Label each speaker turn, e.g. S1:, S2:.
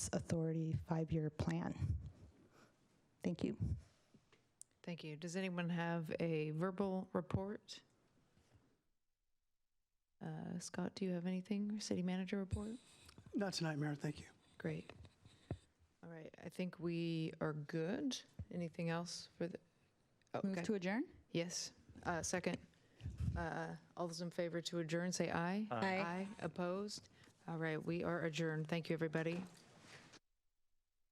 S1: Authority five-year plan. Thank you.
S2: Thank you. Does anyone have a verbal report? Uh, Scott, do you have anything? City manager report?
S3: Not tonight, Mayor, thank you.
S2: Great. All right, I think we are good. Anything else for the? oh,
S4: Move
S2: okay.
S4: to adjourn?
S2: Yes. Uh, Second. Uh, All those in favor to adjourn, say aye.
S4: Aye.
S2: Opposed? All right, we are adjourned. Thank you, everybody.